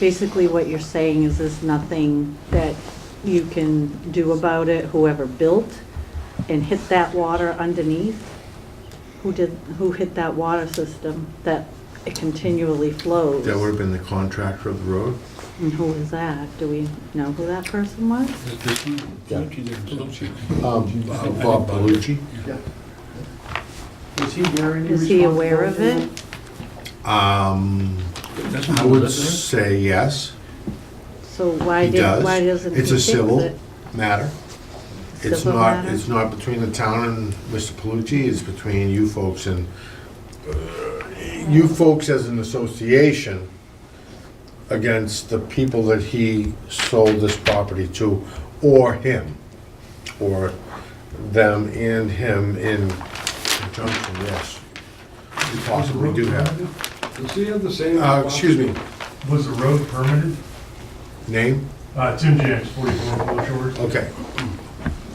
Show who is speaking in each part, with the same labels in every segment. Speaker 1: basically what you're saying is there's nothing that you can do about it, whoever built and hit that water underneath? Who did, who hit that water system that it continually flows?
Speaker 2: That would have been the contractor of the road?
Speaker 1: And who is that? Do we know who that person was?
Speaker 3: Yeah.
Speaker 2: Um, Bob Palucci?
Speaker 4: Was he wearing
Speaker 1: Is he aware of it?
Speaker 2: Um, I would say yes.
Speaker 1: So why
Speaker 2: He
Speaker 1: did, why
Speaker 2: does.
Speaker 1: doesn't he
Speaker 2: It's
Speaker 1: fix
Speaker 2: a
Speaker 1: it?
Speaker 2: civil matter. It's
Speaker 1: Civil
Speaker 2: not,
Speaker 1: matter?
Speaker 2: it's not between the town and Mr. Palucci, it's between you folks and, uh, you folks as an association against the people that he sold this property to, or him, or them and him in conjunction, yes. You possibly do have.
Speaker 5: Does he have the same?
Speaker 2: Uh, excuse me,
Speaker 6: Was the road permitted?
Speaker 2: name?
Speaker 6: Uh, Tim James, 44 Gulf Shores.
Speaker 2: Okay.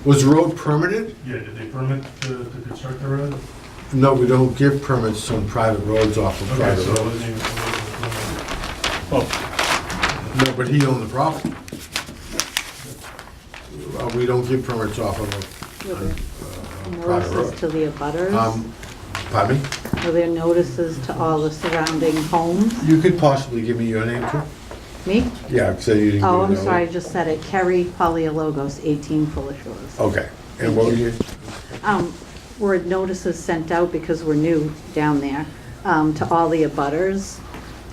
Speaker 2: Was the road permitted?
Speaker 6: Yeah, did they permit to to construct the road?
Speaker 2: No, we don't give permits on private roads off of
Speaker 6: Okay,
Speaker 2: private
Speaker 6: so it
Speaker 2: roads.
Speaker 6: wasn't even- it wasn't-
Speaker 2: No, but he owned the property. Uh, We don't give permits off of a- on, uh, private
Speaker 1: Notices to
Speaker 2: road.
Speaker 1: the abutters?
Speaker 2: Um, Pardon me?
Speaker 1: Are there notices to all the surrounding homes?
Speaker 2: You could possibly give me your name too?
Speaker 1: Me?
Speaker 2: Yeah, so you didn't.
Speaker 1: Oh,
Speaker 2: give
Speaker 1: I'm
Speaker 2: me that
Speaker 1: sorry, I
Speaker 2: one.
Speaker 1: just said it. Kerry Polyologos, 18 Fuller Shores.
Speaker 2: Okay. And what were you,
Speaker 1: Um, Were notices sent out because we're new down there um, to all the abutters?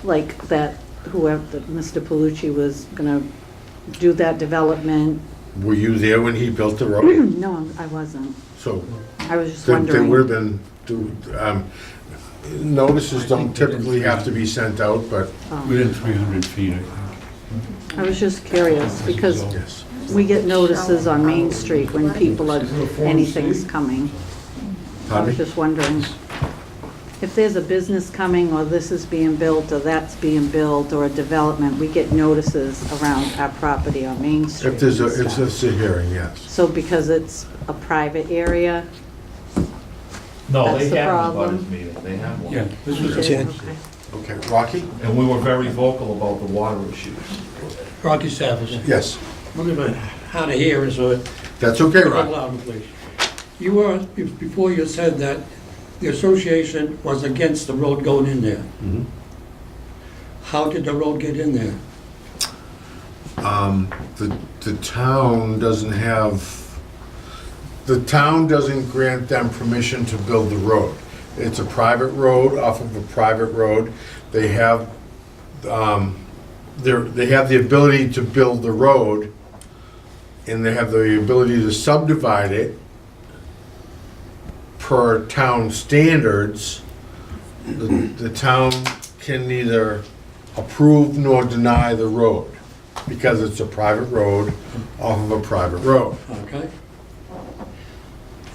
Speaker 1: Like that whoever, that Mr. Palucci was going to do that development?
Speaker 2: were you there when he built the road?
Speaker 1: No, I wasn't.
Speaker 2: So
Speaker 1: I was just
Speaker 2: there- there would have
Speaker 1: wondering.
Speaker 2: been, do- um, notices don't typically have to be sent out, but
Speaker 1: Um,
Speaker 3: Within 300 feet, I think.
Speaker 1: I was just curious because
Speaker 2: yes.
Speaker 1: we get notices on Main Street when people are,
Speaker 5: Is it a Form
Speaker 1: anything's
Speaker 5: C?
Speaker 1: coming. I
Speaker 2: Pardon
Speaker 1: was
Speaker 2: me?
Speaker 1: just wondering if there's a business coming, or this is being built, or that's being built, or a development, we get notices around our property on Main Street.
Speaker 2: If there's a,
Speaker 1: and
Speaker 2: if
Speaker 1: stuff.
Speaker 2: there's a hearing, yes.
Speaker 1: So because it's a private area?
Speaker 7: No,
Speaker 1: That's
Speaker 7: they
Speaker 1: the
Speaker 7: have an
Speaker 1: problem.
Speaker 7: abutters meeting, they have
Speaker 3: Yeah,
Speaker 7: one.
Speaker 3: this was,
Speaker 1: Okay.
Speaker 2: Okay, Rocky?
Speaker 7: And we were very vocal about the water issues.
Speaker 3: Rocky Savage.
Speaker 2: Yes,
Speaker 3: We're gonna, how to hear is, uh,
Speaker 2: that's okay,
Speaker 3: Hold
Speaker 2: Rocky.
Speaker 3: on, please. You were, be- before you said that, the association was against the road going in there. How did the road get in there?
Speaker 2: Um, the, the town doesn't have, the town doesn't grant them permission to build the road. It's a private road off of a private road. They have, um, they're, they have the ability to build the road and they have the ability to subdivide it per town standards. The, the town can neither approve nor deny the road because it's a private road off of a private road.
Speaker 3: Okay?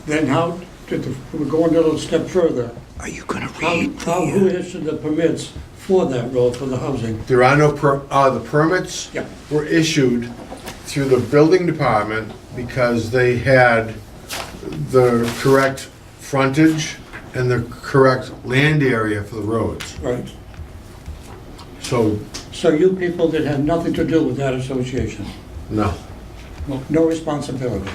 Speaker 3: Then how did the, we're going a little step further.
Speaker 8: Are you gonna
Speaker 3: How, how, who issued the permits for that road, for the housing?
Speaker 2: There are no, per- uh, the permits
Speaker 3: Yeah.
Speaker 2: were issued through the building department because they had the correct frontage and the correct land area for the roads.
Speaker 3: Right.
Speaker 2: So,
Speaker 3: So you people that had nothing to do with that association,
Speaker 2: no,
Speaker 3: no responsibility.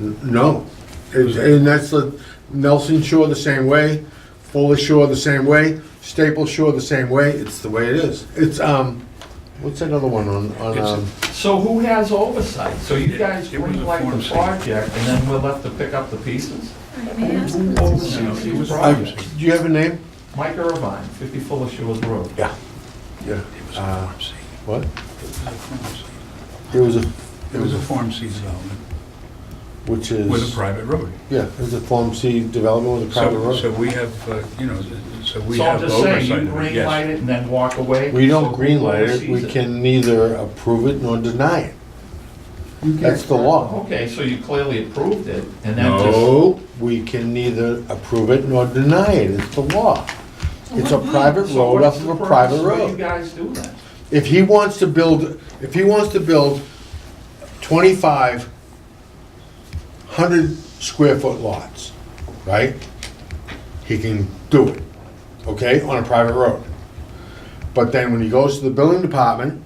Speaker 2: N- no. It's- And that's the, Nelson Shore the same way, Fuller Shore the same way, Staple Shore the same way, it's the way it is. It's, um, what's that other one on, on, um?
Speaker 7: So who has oversight? So you guys
Speaker 3: It was a
Speaker 7: greenlight
Speaker 3: Form
Speaker 7: the
Speaker 3: C.
Speaker 7: project, and then we're left to pick up the pieces?
Speaker 9: May I ask
Speaker 7: Who oversees these
Speaker 2: Uh,
Speaker 7: projects?
Speaker 2: Do you have a name?
Speaker 7: Mike Irvine, 50 Fuller Shores Road.
Speaker 2: Yeah. Yeah. Uh, What? It was a,
Speaker 3: It was a Form C development
Speaker 2: which is.
Speaker 3: with a private road.
Speaker 2: Yeah, it was a Form C development with a private
Speaker 3: So, so
Speaker 2: road.
Speaker 3: we have, uh, you know, so we
Speaker 7: So
Speaker 3: have
Speaker 7: I'm just saying, you
Speaker 3: oversight of it,
Speaker 7: greenlight
Speaker 3: yes.
Speaker 7: it and then walk away?
Speaker 2: We don't
Speaker 7: So who
Speaker 2: greenlight it, we
Speaker 7: oversees
Speaker 2: can neither approve it nor deny it. That's the law.
Speaker 7: Okay, so you clearly approved it, and then just...
Speaker 2: No, we can neither approve it nor deny it, it's the law. It's a private
Speaker 7: So
Speaker 2: road
Speaker 7: what's
Speaker 2: off of
Speaker 7: the
Speaker 2: a
Speaker 7: purpose
Speaker 2: private
Speaker 7: why you
Speaker 2: road.
Speaker 7: guys do that?
Speaker 2: If he wants to build, if he wants to build twenty-five hundred square foot lots, right? He can do it, okay, on a private road. But then when he goes to the building department,